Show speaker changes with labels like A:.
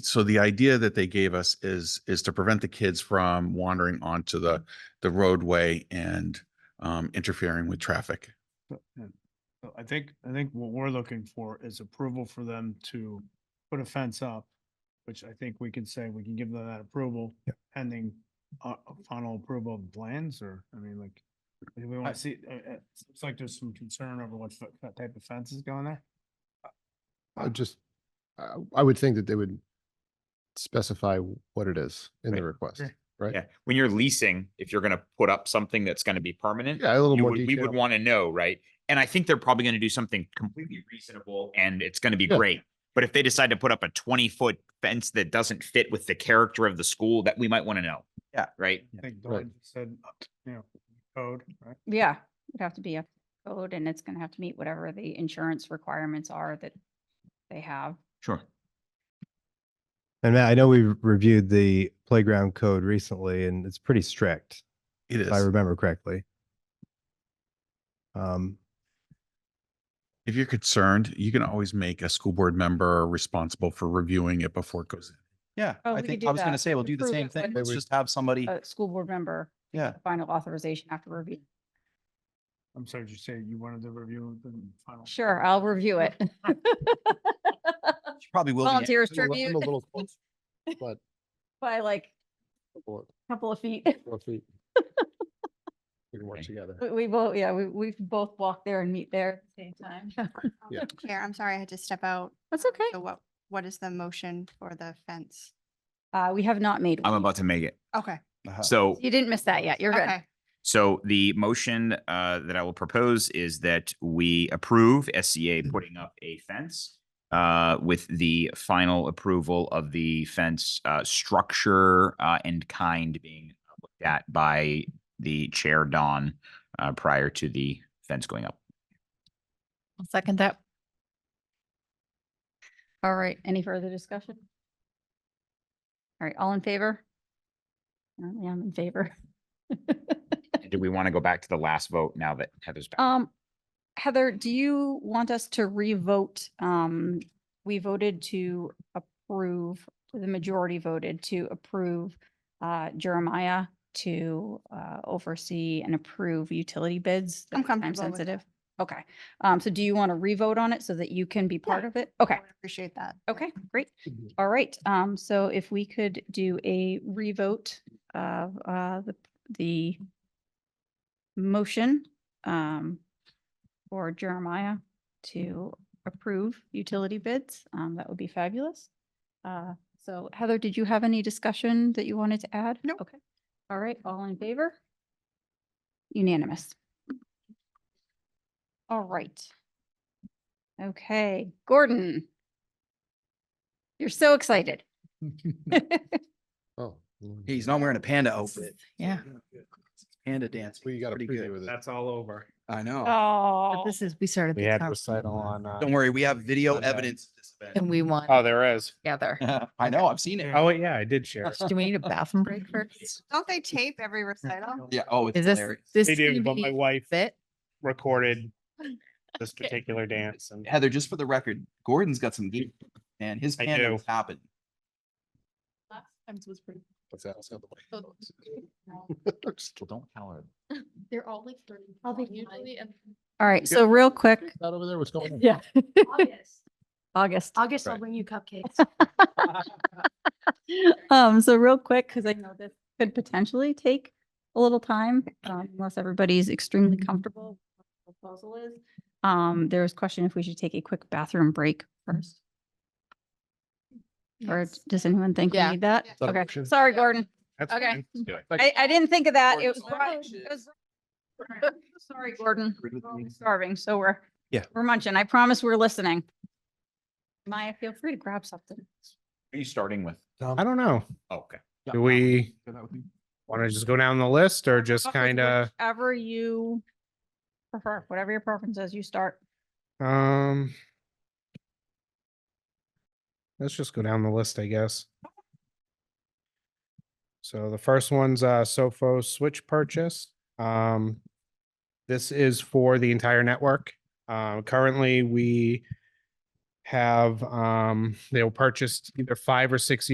A: so the idea that they gave us is, is to prevent the kids from wandering onto the, the roadway and um, interfering with traffic.
B: So, yeah. So I think, I think what we're looking for is approval for them to put a fence up, which I think we can say, we can give them that approval pending uh, uh, final approval of plans or, I mean, like, do we want to see, uh, uh, it's like there's some concern over what fe- what type of fence is going there.
C: I would just, I, I would think that they would specify what it is in the
D: Right.
C: request.
B: Sure.
C: Right.
D: Yeah, when you're leasing, if you're gonna put up something that's gonna be permanent,
C: Yeah, a little
D: you
C: more
D: would- we would
C: detail.
D: wanna know, right? And I think they're probably gonna do something completely reasonable and it's gonna be
C: Yeah.
D: great. But if they decide to put up a twenty foot fence that doesn't fit with the character of the school, that we might wanna know.
E: Yeah.
D: Right?
B: I think
C: Right.
B: Dawn said, you know, code, right?
F: Yeah, it'd have to be a code and it's gonna have to meet whatever the insurance requirements are that they have.
D: Sure.
G: And Matt, I know we reviewed the playground code recently and it's pretty strict,
A: It
G: if I
A: is,
G: remember correctly. Um,
A: if you're concerned, you can always make a school board member responsible for reviewing it before it goes in.
E: Yeah,
F: Oh,
E: I
F: we could
E: think,
F: do
E: I was gonna
F: that.
E: say, we'll do the
F: Approve
E: same
F: it
E: thing.
F: when- Uh,
E: Let's
C: Maybe-
E: just have somebody,
F: A school board member,
E: yeah,
F: final authorization after review.
B: I'm sorry, did you say you wanted to review the final?
F: Sure, uh, I'll review it.
E: she probably will be.
F: Volunteers
C: I'm a li- I'm a
F: tribute
C: little close, But,
F: by like
C: four-
F: a couple of feet.
C: four feet. We can work
D: Okay.
C: together.
F: We- We both, yeah, we, we both walk there and meet there at the same time.
C: Yeah.
H: Chair, I'm sorry, I had to step out.
F: That's okay.
H: So what, what is the motion for the fence?
F: Uh, we have not made.
D: I'm
F: one.
D: about to make it.
H: Okay,
E: Uh-huh.
D: So
F: You didn't miss that yet. You're good.
H: okay.
D: So the motion uh, that I will propose is that we approve SCA
E: Mm.
D: putting up a fence uh, with the final approval of the fence uh, structure uh, and kind being looked at by the chair, Don, uh, prior to the fence going up.
I: I'll second that.
F: All right, any further discussion? All right, all in favor? Apparently I'm in favor.
D: Do we want to go back to the last vote now that Heather's back?
F: Um, Heather, do you want us to revote? Um, we voted to approve, the majority voted to approve uh Jeremiah to uh oversee and approve utility bids. that
H: I'm
F: were time
H: comfortable with that.
F: sensitive. Okay, um, so do you want to revote on it so that you can be part
H: Yeah.
F: of it?
H: I
F: Okay,
H: would Appreciate that.
F: okay, great. All right, um, so if we could do a revote of, uh, the, the motion, um, for Jeremiah to approve utility bids, um, that would be fabulous. Uh, so Heather, did you have any discussion that you wanted to add? No. Okay, all right, all in favor? Unanimous. All right. Okay, Gordon. You're so excited.
C: Oh. mm.
E: He's not wearing a panda outfit,
I: Yeah.
E: Mm-hmm. panda dance.
C: We got a
E: pretty
C: preview
E: good.
C: with it.
B: all over.
E: I know.
F: Oh,
I: But this is, we started. this conversation
C: on.
J: uh,
E: Don't worry, we have video
B: Sunday.
E: evidence. of this event.
I: And we want
J: Oh, there is.
I: together.
E: I know, I've seen it.
J: Oh, yeah, I did share.
I: Do we need a bathroom break first?
H: Don't they tape every recital?
E: Yeah, oh, it's
I: Is this,
E: hilarious.
I: this?
J: They do, but
I: TV
J: my wife
I: Fit?
J: recorded this
I: Okay.
J: particular dance and
E: Heather, just for the record, Gordon's got some geek, and his
J: I
E: panda
J: do.
E: was happened.
I: Last times was pretty.
C: What's that? It's the other way.
I: So-
C: Just
D: Well, don't tell her.
I: They're all like thirty.
F: I'll be
I: long usually, and-
F: all right. So real quick.
C: Out over there, what's going on?
F: Yeah.
I: August.
F: August.
I: August, I'll
C: Right.
I: bring you cupcakes.
F: Um, so real quick, because I know this could potentially take a little time, um, unless everybody's extremely
I: Mm-hmm.
F: comfortable. with what the Proposal is, um, there was question if we should take a quick bathroom break first. Or
I: Yes.
F: does anyone think we
I: Yeah.
F: need that?
H: Is
C: that a
F: Okay,
C: motion?
F: sorry, Gordon.
J: that's
I: Okay.
J: fine.
D: Do it.
F: I, I didn't think of that. It
E: Gordon's
F: was.
E: on
F: brought-
E: punches.
F: it was- Sorry, Gordon.
E: Agree with
F: We're only
E: me.
F: starving, so we're.
G: Yeah.
F: We're munching. I promise we're listening. Maya, feel free to grab something.
D: Who Are you starting with?
J: I don't know.
D: Oh, Okay.
E: Yeah,
J: Do we
E: that would be-
J: want to just go down the list or just
F: Offer
J: kind of,
F: Whatever you prefer, whatever your preference is, you start.
J: um, let's just go down the list, I guess. So the first one's uh Sofo switch purchase. Um, this is for the entire network. Uh, currently, we have, um, they'll purchase either five or six